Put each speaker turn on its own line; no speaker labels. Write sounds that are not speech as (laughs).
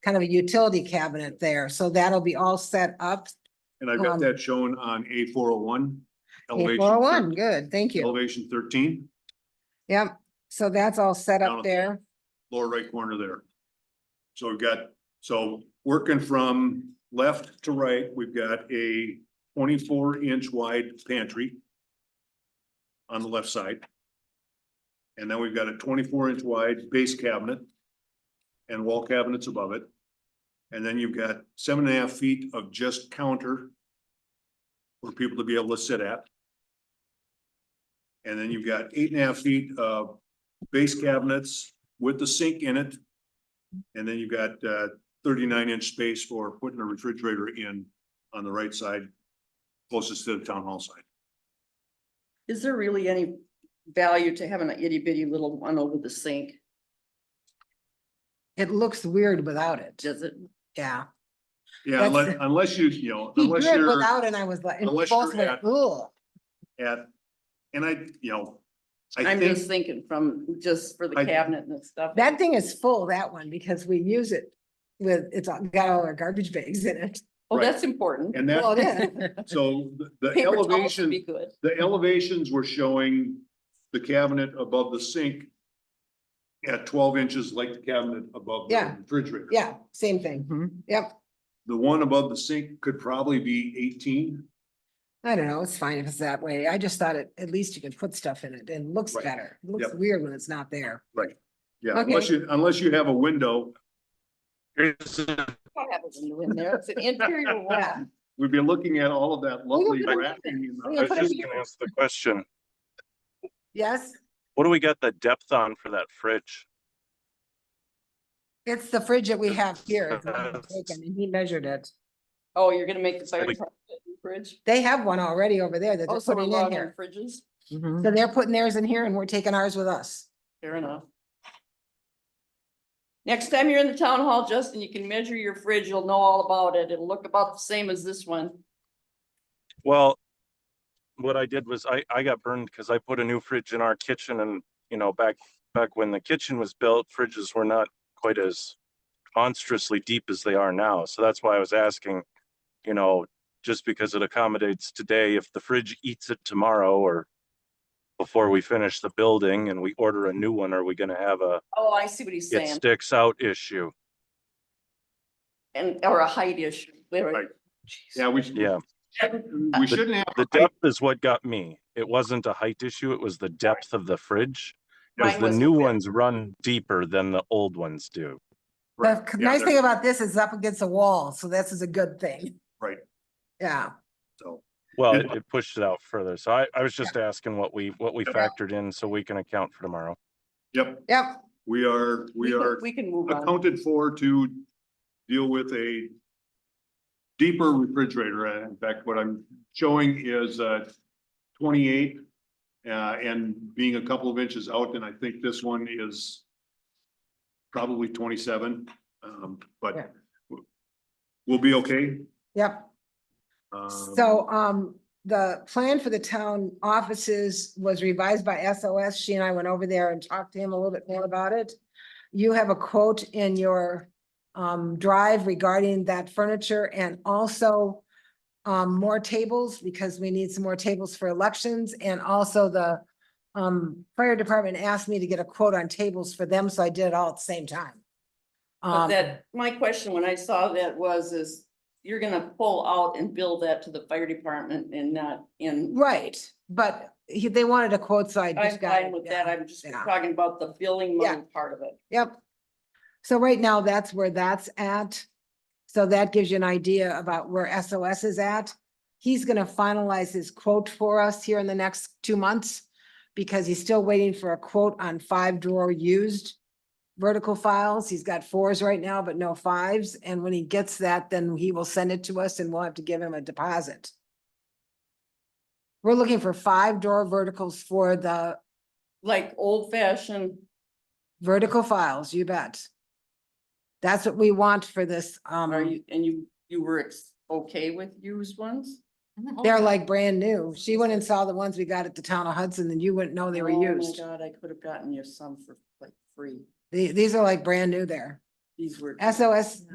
kind of a utility cabinet there. So that'll be all set up.
And I've
Um,
got that shown on A four oh one.
Eight four oh one, good, thank you.
Elevation thirteen,
Yep, so that's all set
Down
up
at-
there.
lower right corner there. So we've got, so working from left to right, we've got a twenty-four inch wide pantry. On the left side. And then we've got a twenty-four inch wide base cabinet. And wall cabinets above it. And then you've got seven and a half feet of just counter. For people to be able to sit at. And then you've got eight and a half feet of base cabinets with the sink in it. And then you've got uh thirty-nine inch space for putting a refrigerator in on the right side, closest to the town hall side.
Is there really any value to having an itty bitty little one over the sink?
It looks weird without it.
Does it?
Yeah.
Yeah, unless,
That's-
unless you, you know,
He
unless
drew it
you're
without and I was like, and
unless
both
you're
went,
at-
"Ugh."
at, and I, you know, I
I'm just
think,
thinking from, just for the
I-
cabinet and the stuff.
That thing is full, that one, because we use it with, it's all- got all our garbage bags in it.
Oh,
Right.
that's important. (laughs)
and that,
Well, yeah.
(laughs) so the- the
Paper towels would be
elevation,
good.
the elevations were showing the cabinet above the sink at twelve inches like the cabinet above the
Yeah.
refrigerator.
Yeah, same thing. Yep.
The one above the sink could probably be eighteen.
I don't know, it's fine if it's that way. I just thought it, at least you can put stuff in it and it looks
Right.
better. It Looks
Yep.
weird when it's not there.
Yeah, unless you, unless you have a window,
I'll have a window in there.
(laughs)
It's an interior wall.
Yeah,
we'd be looking at all of that lovely
put a
racking.
We
I
can
and
was
put a
the-
just gonna ask the question,
yes,
what do we got the depth on for that fridge?
it's the fridge that we have here. if I'm not mistaken, And he measured it.
Oh, you're gonna make the fire
Like-
truck fit in the fridge?
They have one already over there that
Oh,
they're
so we're
putting in
logging our
here.
fridges?
So they're putting theirs in here and we're taking ours with us.
Fair enough. Next time you're in the town hall, Justin, you can measure your fridge. You'll know all about it. It'll look about the same as this one.
Well, what I did was I, I got burned because I put a new fridge in our kitchen and, you know, back, back when the kitchen was built, fridges were not quite as monstrously deep as they are now. So that's why I was asking, you know, just because it accommodates today, if the fridge eats it tomorrow or before we finish the building and we order a new one, are we gonna have a
Oh, I see what he's
it
saying.
sticks out issue?
And, or a height issue. There-
Right. Yeah, we should.
Yeah.
We shouldn't have.
The depth is what got me. It wasn't a height issue, it was the depth of the fridge. Cause
Mine
the
was-
new ones run deeper than the old ones
The
do.
Right,
c-
yeah,
nice
there-
thing about this is up against the wall, so this is a good thing.
Right.
Yeah,
so,
Well,
Yeah.
it pushed it out further. So I, I was just asking what we, what we
Yeah.
factored in so we can account for tomorrow.
Yep,
yep,
we are, we
can-
are
We can move on.
accounted for to deal with a deeper refrigerator. Uh, In fact, what I'm showing is uh twenty-eight uh and being a couple of inches out, and I think this one is probably twenty-seven, um,
Yeah.
but we'll be okay.
yep.
Um,
So, um, the plan for the town offices was revised by SOS. She and I went over there and talked to him a little bit more about it. You have a quote in your, um, drive regarding that furniture and also um, more tables because we need some more tables for elections and also the um, fire department asked me to get a quote on tables for them, so I did it all at the same time.
But
Um,
that, my question when I saw that was, is you're gonna pull out and build that to the fire department and not in.
right, but he, they wanted a quote, so I
I'm
just got.
fine
it,
with
yeah.
that. I'm just
yeah.
talking about the billing money
Yeah.
part of it.
Yep. So right now, that's where that's at. So that gives you an idea about where SOS is at. He's gonna finalize his quote for us here in the next two months. Because he's still waiting for a quote on five drawer used vertical files. He's got fours right now, but no fives. And when he gets that, then he will send it to us and we'll have to give him a deposit. We're looking for five drawer verticals for the
Like old fashioned,
Vertical files, you bet. That's what we want for this,
are
um,
you, and you, you were ex- okay with used ones? oh
they're like brand new. She went and saw the ones we got at the town of Hudson and you wouldn't know they were
Oh my
used.
God, I could have gotten you some for like free.
The- These, are like brand new there.
These were.
SOS